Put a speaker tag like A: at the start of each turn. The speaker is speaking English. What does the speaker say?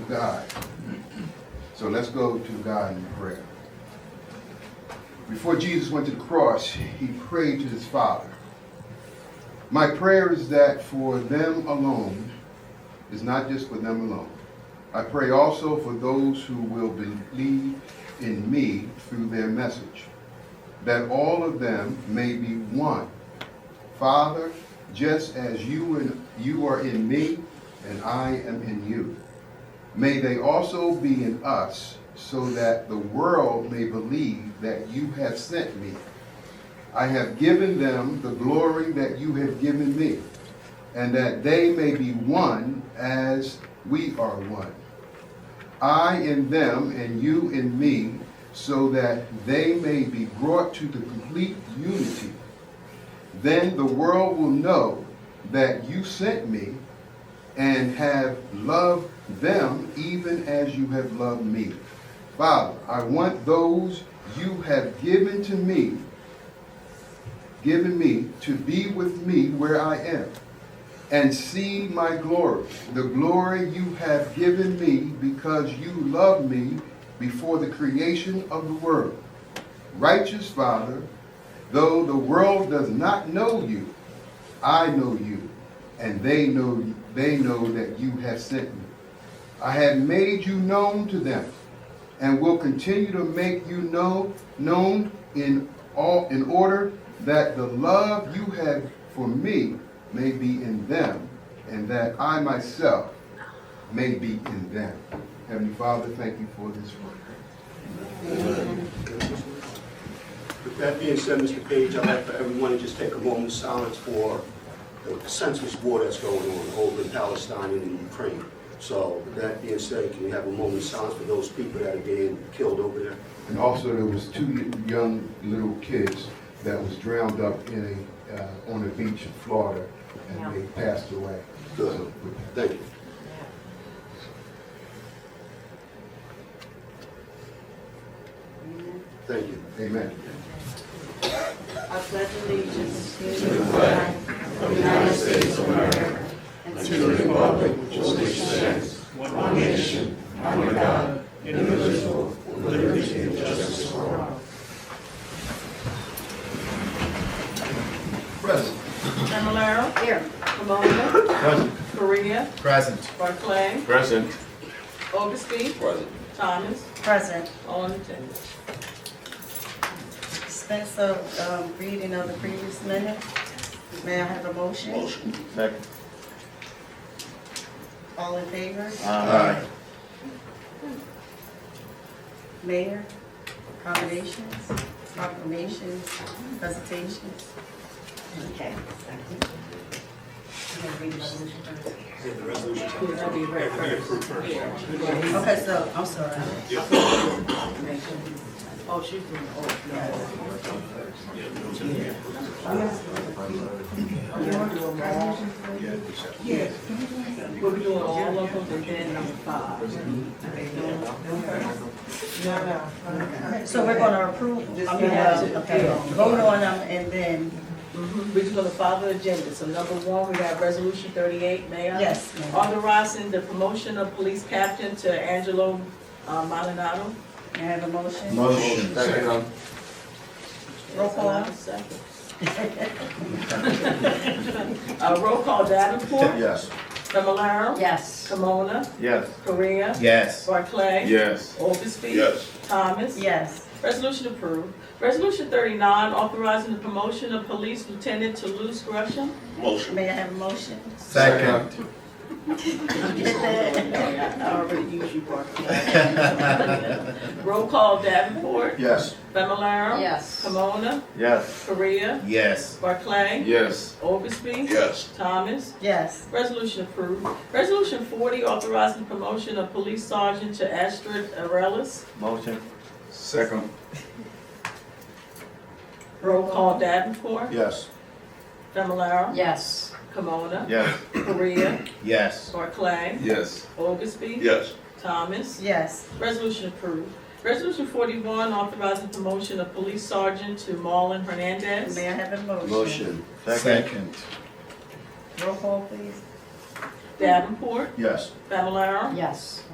A: God. So let's go to God in prayer. Before Jesus went to the cross, he prayed to his Father. My prayer is that for them alone, is not just for them alone. I pray also for those who will believe in me through their message, that all of them may be one. Father, just as you and you are in me and I am in you, may they also be in us, so that the world may believe that you have sent me. I have given them the glory that you have given me, and that they may be one as we are one. I in them and you in me, so that they may be brought to the complete unity. Then the world will know that you sent me and have loved them even as you have loved me. Father, I want those you have given to me, given me to be with me where I am and see my glory, the glory you have given me because you loved me before the creation of the world. Righteous Father, though the world does not know you, I know you, and they know they know that you have sent me. I have made you known to them, and will continue to make you know known in all in order that the love you have for me may be in them, and that I myself may be in them. Heavenly Father, thank you for this word.
B: With that being said, Mr. Page, I'd like for everyone to just take a moment of silence for the senseless war that's going on over in Palestine and in Ukraine. So with that being said, can we have a moment of silence for those people that are being killed over there?
A: And also, there was two young little kids that was drowned up in a, uh, on a beach in Florida, and they passed away.
B: Good. Thank you. Thank you.
A: Amen.
C: I pledge allegiance to the flag of the United States of America and to the republic for which it stands,
D: Present.
E: Familar,
C: Here.
E: Pomona,
D: Present.
E: Korea,
D: Present.
E: Barclay,
F: Present.
E: Augustine,
F: Present.
E: Thomas,
C: Present.
E: all in attendance.
C: Dispense of um, reading of the previous minutes. May I have a motion? Motion.
D: Second.
C: All in favor?
D: Aye.
C: Mayor, accommodations, proclamations, presentations. Okay. I'm gonna read the resolution first.
E: That'll be read first.
C: Okay, so, I'm sorry.
E: Oh, she's doing, oh,
C: Yes.
E: we'll be doing all of them and then number five. No, no.
C: So we're gonna approve, I mean,
E: Yeah.
C: uh, okay, vote on them and then,
E: We're just gonna follow the agenda. So number one, we have resolution thirty-eight, Mayor.
C: yes, ma'am.
E: Authorizing the promotion of police captain to Angelo uh, Malinado.
C: May I have a motion?
D: Motion. Second.
C: Roll call.
E: Second. Uh, roll call, Davenport.
D: Yes.
E: Familar.
C: Yes.
E: Pomona,
D: Yes.
E: Korea.
D: Yes.
E: Barclay.
F: Yes.
E: Augustine.
F: Yes.
E: Thomas.
C: Yes,
E: Resolution approved. Resolution thirty-nine, authorizing the promotion of police lieutenant to Luz Gresham.
F: Motion.
C: may I have a motion?
D: Second.
E: I already used you, Barclay. Roll call Davenport.
D: Yes.
E: Familar.
C: Yes.
E: Pomona,
D: Yes.
E: Korea.
D: Yes.
E: Barclay.
F: Yes.
E: Augustine.
F: Yes.
E: Thomas.
C: Yes,
E: Resolution approved. Resolution forty, authorizing the promotion of police sergeant to Astrid Arelis.
D: Motion.
F: Second.
E: Roll call Davenport.
D: Yes.
E: Familar.
C: yes,
E: Pomona.
D: Yes.
E: Korea.
D: Yes.
E: Barclay.
F: Yes.
E: Augustby.
F: Yes.
E: Thomas.
C: yes,
E: Resolution approved. Resolution forty-one, authorizing promotion of police sergeant to Marlon Hernandez.
C: may I have a motion?
D: Second.
C: Roll call, please.
E: Davenport.
D: Yes.
E: Fablelaro.
C: Yes.